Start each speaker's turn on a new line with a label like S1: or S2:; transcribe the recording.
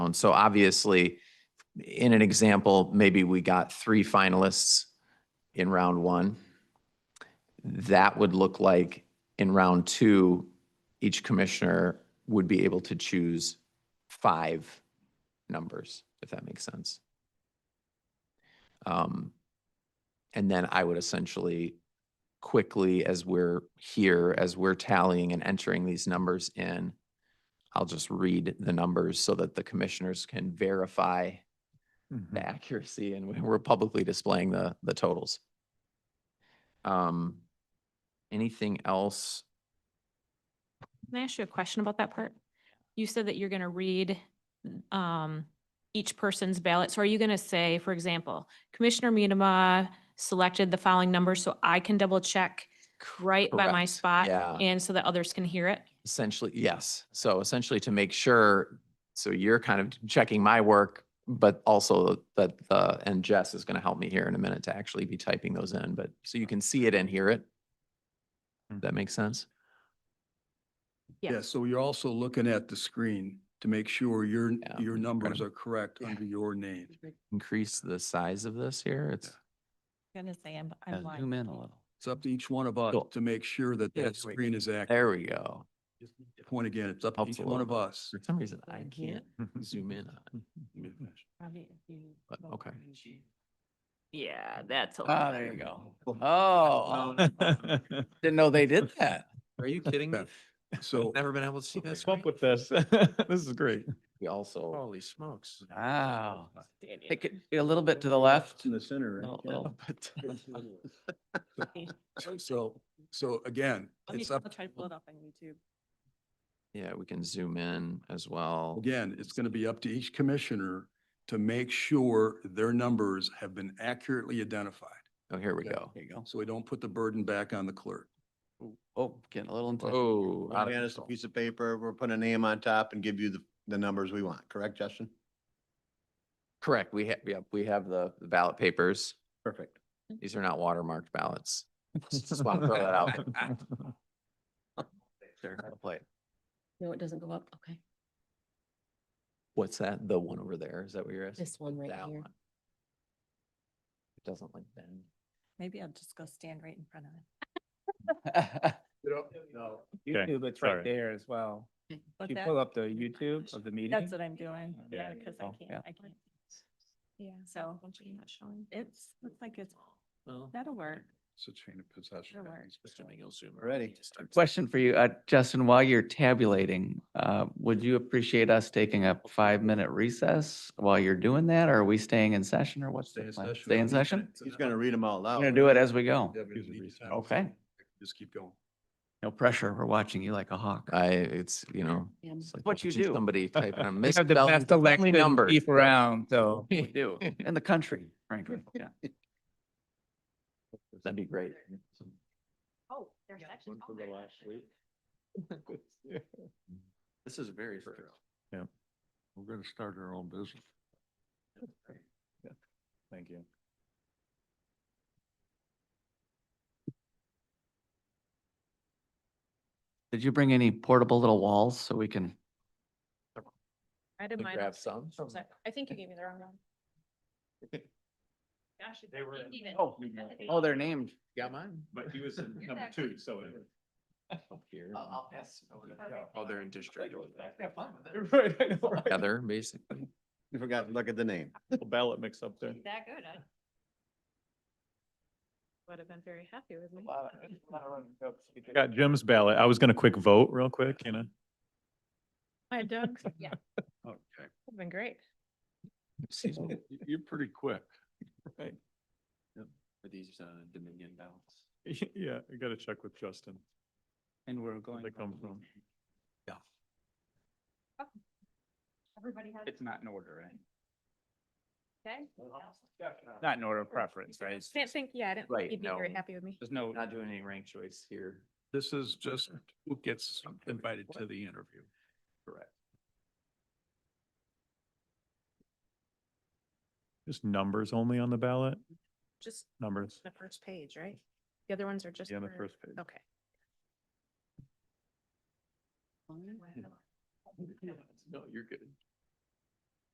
S1: own. So obviously, in an example, maybe we got three finalists in round one. That would look like in round two, each commissioner would be able to choose five numbers, if that makes sense. Um, And then I would essentially quickly, as we're here, as we're tallying and entering these numbers in, I'll just read the numbers so that the commissioners can verify the accuracy and we- we're publicly displaying the, the totals. Um, anything else?
S2: Can I ask you a question about that part? You said that you're gonna read um each person's ballot. So are you gonna say, for example, Commissioner Minema selected the following numbers so I can double check right by my
S1: Correct.
S2: spot?
S1: Yeah.
S2: And so that others can hear it?
S1: Essentially, yes. So essentially to make sure, so you're kind of checking my work, but also that, the and Jess is going to help me here in a minute to actually be typing those in, but so you can see it and hear it. That makes sense?
S2: Yeah.
S3: Yeah, so you're also looking at the screen to make sure your,
S1: Yeah,
S3: your
S1: I'm
S3: numbers
S1: gonna-
S3: are correct under your name.
S1: Increase the size of this here. It's,
S4: Gonna say I'm,
S5: Yeah,
S4: I'm
S5: Zoom
S4: lying.
S5: in a little.
S3: It's up to each one of us
S1: Cool.
S3: to make sure that
S1: Yeah,
S3: that
S1: there we go.
S3: screen is accurate.
S1: there we go.
S3: Point again, it's up to
S1: Helps
S3: each
S1: a
S3: one
S1: little
S3: of
S1: bit.
S3: us.
S1: For some reason, I
S4: Right here.
S1: can't zoom in. on it. But, okay.
S2: Yeah, that's a
S5: Ah,
S2: lot.
S5: there you go. Oh. Didn't know they did that.
S1: Are you kidding me?
S3: Yeah. So
S1: Never been able to see this.
S6: Let's up with this. This is great.
S1: We also,
S6: Holy smokes.
S5: Wow. Take it a little bit to the left. Oh,
S3: in the center,
S5: Little-
S3: right?
S5: little bit.
S3: Yeah. So, so again,
S4: Let me,
S3: it's
S4: I'll
S3: up,
S4: try to pull it up on YouTube.
S1: yeah, we can zoom in as well.
S3: again, it's going to be up to each commissioner to make sure their numbers have been accurately identified.
S1: Oh, here we
S3: Yeah.
S1: go.
S5: There you go.
S3: So we don't put the burden back on the clerk.
S5: Oh, getting a little into.
S1: Oh.
S7: We'll hand us a piece of paper, we'll put a name on top and give you the, the numbers we want, correct, Justin?
S1: Correct. We have, yeah, we have the the ballot papers.
S7: Perfect.
S1: These are not watermarked ballots. Just want to throw that out.
S5: Sure, I'll play it.
S8: No, it doesn't go up. Okay.
S1: What's that? The one over there? Is that what you're asking?
S8: This one right
S1: That
S8: here.
S1: one. It doesn't like bend.
S4: Maybe I'll just go stand right in front of it.
S6: Okay,
S9: YouTube, it's
S6: sorry.
S9: right there as well. If
S4: But
S9: you
S4: that-
S9: pull up the YouTube of the meeting.
S4: That's what I'm doing.
S6: Yeah.
S4: Yeah, because I
S5: Oh, yeah.
S4: can't, I can't. Yeah. So it's, looks like it's, that'll work.
S3: It's a chain of possession.
S4: Sure works.
S7: Ready?
S5: Question for you, uh, Justin, while you're tabulating, uh, would you appreciate us taking a five-minute recess while you're doing that? Or are we staying in session or what's
S3: Stay
S5: the
S3: in
S5: plan?
S3: session.
S5: Stay in session?
S7: He's gonna read them out
S5: I'm
S7: loud.
S5: gonna do it as we go.
S3: Yeah, but
S6: Here's
S3: you
S6: a
S3: need
S6: reason.
S3: time.
S5: Okay.
S3: Just keep going.
S5: No pressure. We're watching you like a hawk.
S3: Uh.
S1: I, it's, you know.
S8: Yeah.
S1: it's like
S5: What you
S1: watching
S5: do.
S1: Somebody typing on
S9: We have the best elected
S1: numbers.
S9: beef around, so.
S5: We do, in the country, frankly, yeah.
S1: That'd be great.
S2: Oh, there's actually.
S1: This is very first.
S3: We're gonna start our own business.
S6: Thank you.
S5: Did you bring any portable little walls so we can?
S2: I did mine.
S1: Grab some.
S2: I think you gave me the wrong one. Gosh, it's
S6: They were-
S2: not even.
S5: Oh, oh, they're named.
S1: Got mine?
S6: But he was in
S2: Here's
S6: number
S2: that
S6: two, so. it-
S1: Here.
S5: pass.
S1: Oh, they're in district.
S5: Have fun with it.
S6: Right, I know, right.
S1: Heather, basically.
S7: You forgot, to look at the name.
S6: Little Ballot mix up there.
S2: That good. I Would have been very happy with me.
S6: Got Jim's ballot. I was gonna quick vote real quick, you know?
S2: My dogs, yeah,
S3: Okay.
S2: it's been great.
S1: Excuse me.
S3: You're pretty quick.
S6: Right.
S5: For these Dominion ballots.
S6: Yeah, I gotta check with Justin.
S9: And we're going.
S6: They come
S9: from-
S6: from-
S2: Everybody has.
S9: It's not in order, right?
S2: Okay.
S9: Not in order of preference, right?
S2: Can't think, yeah, I didn't
S1: Right,
S2: think you'd be very
S1: no.
S2: happy with me.
S9: There's no.
S1: Not doing any rank choice here.
S3: This is just who gets invited to the interview.
S6: Just numbers only on the ballot,
S2: Just
S6: numbers.
S2: the first page, right? The other ones are just.
S6: Yeah, the
S2: for-
S6: first page.
S2: Okay.
S1: No, you're good.